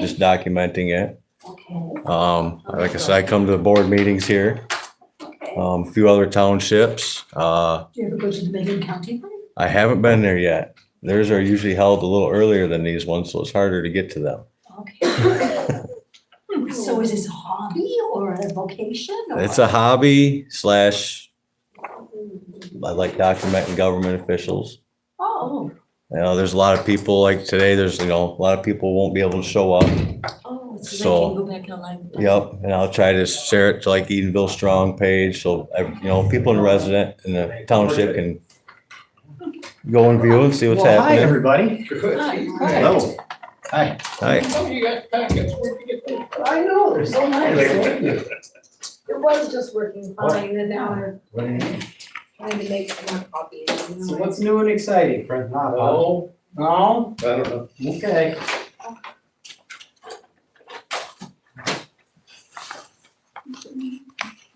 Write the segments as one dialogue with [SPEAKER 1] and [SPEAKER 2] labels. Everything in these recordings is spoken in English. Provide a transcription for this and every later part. [SPEAKER 1] just documenting it.
[SPEAKER 2] Okay,
[SPEAKER 1] Um, like I said, I come to the board meetings here,
[SPEAKER 2] okay.
[SPEAKER 1] um, a few other townships. Uh,
[SPEAKER 2] Do you ever go to the Midland County one?
[SPEAKER 1] I haven't been there yet. Theirs are usually held a little earlier than these ones, so it's harder to get to them.
[SPEAKER 2] Okay. So is this a hobby or a vocation? or-
[SPEAKER 1] It's a hobby slash, I like documenting government officials.
[SPEAKER 2] Oh,
[SPEAKER 1] You know, there's a lot of people, like today, there's, you know, a lot of people won't be able to show up.
[SPEAKER 2] oh, so
[SPEAKER 1] So-
[SPEAKER 2] they can go back online.
[SPEAKER 1] Yep, and I'll try to share it to like Edenville Strong page, so, ev- you know, people in resident in the township can go and view and see what's
[SPEAKER 3] Well, Hi,
[SPEAKER 1] happening.
[SPEAKER 3] everybody.
[SPEAKER 2] Hi,
[SPEAKER 4] Good.
[SPEAKER 2] hi.
[SPEAKER 3] Hello. Hi.
[SPEAKER 1] Hi,
[SPEAKER 4] Some of you got packets, where'd you get those?
[SPEAKER 5] I know, they're so nice.
[SPEAKER 4] Thank
[SPEAKER 5] It was just working fine, and now I'm
[SPEAKER 3] So
[SPEAKER 5] trying to make some more copies. you know,
[SPEAKER 3] what's new and exciting, Frank? Not a lot.
[SPEAKER 4] Oh,
[SPEAKER 3] No?
[SPEAKER 4] I don't know.
[SPEAKER 3] Okay.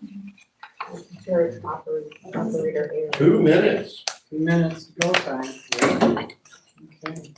[SPEAKER 5] I'm Sure, it's operator, operator here.
[SPEAKER 4] Two minutes.
[SPEAKER 3] Two minutes to go time. Okay.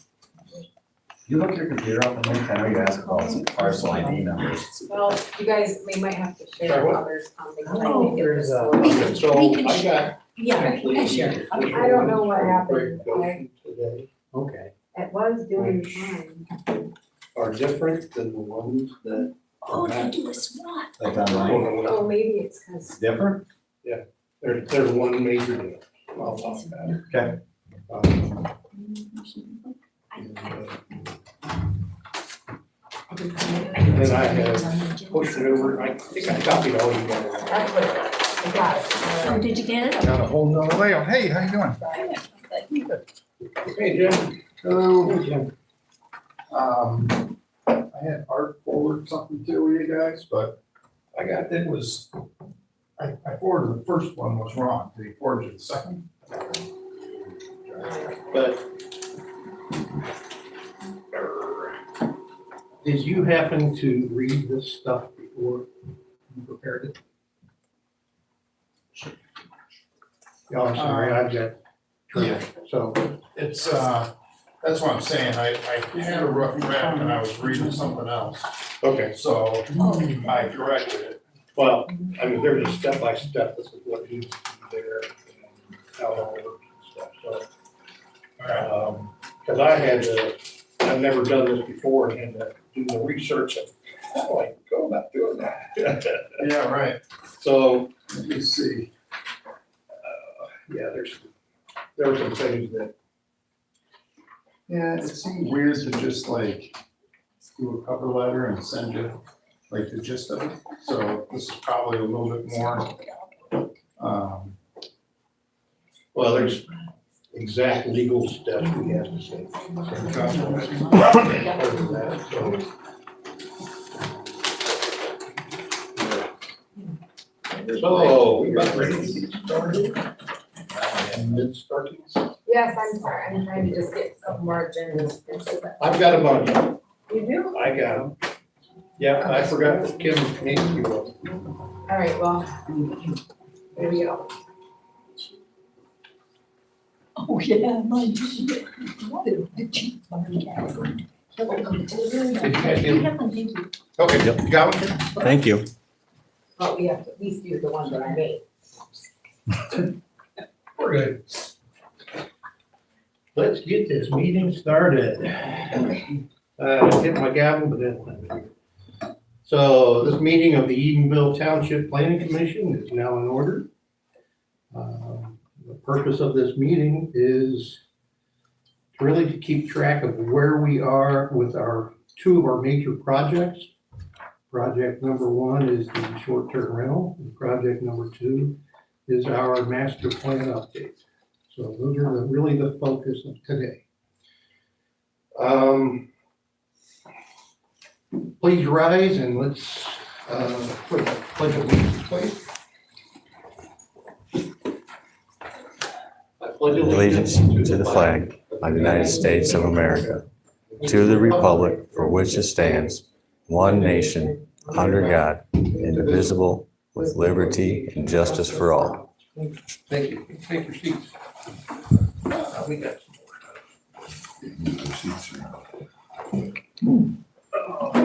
[SPEAKER 6] You look your computer up and look, I know you ask about some parcel ID numbers.
[SPEAKER 5] Well, you guys, we might have to
[SPEAKER 4] Sorry,
[SPEAKER 5] share
[SPEAKER 4] what?
[SPEAKER 5] others, um, because
[SPEAKER 3] I
[SPEAKER 5] I
[SPEAKER 3] don't know
[SPEAKER 5] think
[SPEAKER 3] if
[SPEAKER 5] it
[SPEAKER 3] Oh, there's
[SPEAKER 5] was.
[SPEAKER 3] a-
[SPEAKER 5] slow.
[SPEAKER 4] So
[SPEAKER 2] can
[SPEAKER 4] I got.
[SPEAKER 2] Yeah, we can share.
[SPEAKER 4] actually,
[SPEAKER 2] Okay.
[SPEAKER 5] I don't know what
[SPEAKER 4] one
[SPEAKER 5] happened.
[SPEAKER 4] presentation Today
[SPEAKER 3] Okay.
[SPEAKER 5] It was doing fine.
[SPEAKER 4] are different than the ones that.
[SPEAKER 2] Oh, they do a SWAT.
[SPEAKER 6] Like online.
[SPEAKER 5] Oh, maybe it's because,
[SPEAKER 6] Different?
[SPEAKER 4] There's, there's one major deal. I'll talk about it.
[SPEAKER 6] Okay.
[SPEAKER 4] Um, And I have pushed it over, I think I copied all you guys.
[SPEAKER 5] that's what, I got it.
[SPEAKER 2] Oh, did you get it?
[SPEAKER 6] Got a whole nother layer. Hey, how you doing?
[SPEAKER 4] Hey, Jim,
[SPEAKER 6] So,
[SPEAKER 4] Jim,
[SPEAKER 6] um, I had art forward something to you guys, but I got, it was, I, I forwarded the first one was wrong. Did he forward you the second?
[SPEAKER 4] but. Did you happen to read this stuff before you prepared it? Yeah, Oh, I'm sorry, I got.
[SPEAKER 6] Yeah.
[SPEAKER 4] So,
[SPEAKER 6] It's, uh, that's what I'm saying. I, I had a rough draft and I was reading something else.
[SPEAKER 4] okay,
[SPEAKER 6] So I corrected it.
[SPEAKER 4] well, I mean, there's a step by step, this is what needs to be there, and how it all works and stuff, so.
[SPEAKER 6] All right.
[SPEAKER 4] Um, cause I had to, I've never done this before and had to do the research and how do I go about doing that?
[SPEAKER 6] Yeah, right.
[SPEAKER 4] So,
[SPEAKER 6] Let me see.
[SPEAKER 4] uh, yeah, there's, there were some things that,
[SPEAKER 6] Yeah, it seemed weird to just like do a cover letter and send it, like the gist of it. So this is probably a little bit more, um,
[SPEAKER 4] well, there's exact legal steps we have to take. Over that, so, So, we about ready to get started? And then starting,
[SPEAKER 5] Yes, I'm sorry, I'm trying to just get some more agendas.
[SPEAKER 4] I've got a bunch,
[SPEAKER 5] You do?
[SPEAKER 4] I got them. Yeah, I forgot that Kim needs to go.
[SPEAKER 5] All right, well, there we go.
[SPEAKER 2] Oh, yeah, mine too. What a bitchy farm cat. Welcome to the
[SPEAKER 4] Did you guys get
[SPEAKER 2] room.
[SPEAKER 4] it?
[SPEAKER 2] Have one, thank you.
[SPEAKER 4] Okay,
[SPEAKER 1] Yep.
[SPEAKER 4] you got one?
[SPEAKER 1] thank you.
[SPEAKER 5] But we have to at least use the ones that I made.
[SPEAKER 4] We're good. Let's get this meeting started. Uh, hit my gavel, but then. So this meeting of the Edenville Township Planning Commission is now in order. Um, The purpose of this meeting is really to keep track of where we are with our, two of our major projects. Project number one is the short-term rental, and project number two is our master plan update. So those are the- really the focus of today. Um, Please rise and let's, uh, put the pledge of allegiance, please. I pledge
[SPEAKER 1] Allegiance to the flag of the United States of America, to the republic for which it stands, one nation, under God, indivisible, with liberty and justice for all.
[SPEAKER 4] Thank you. Take your seats. Uh, We got some more. go.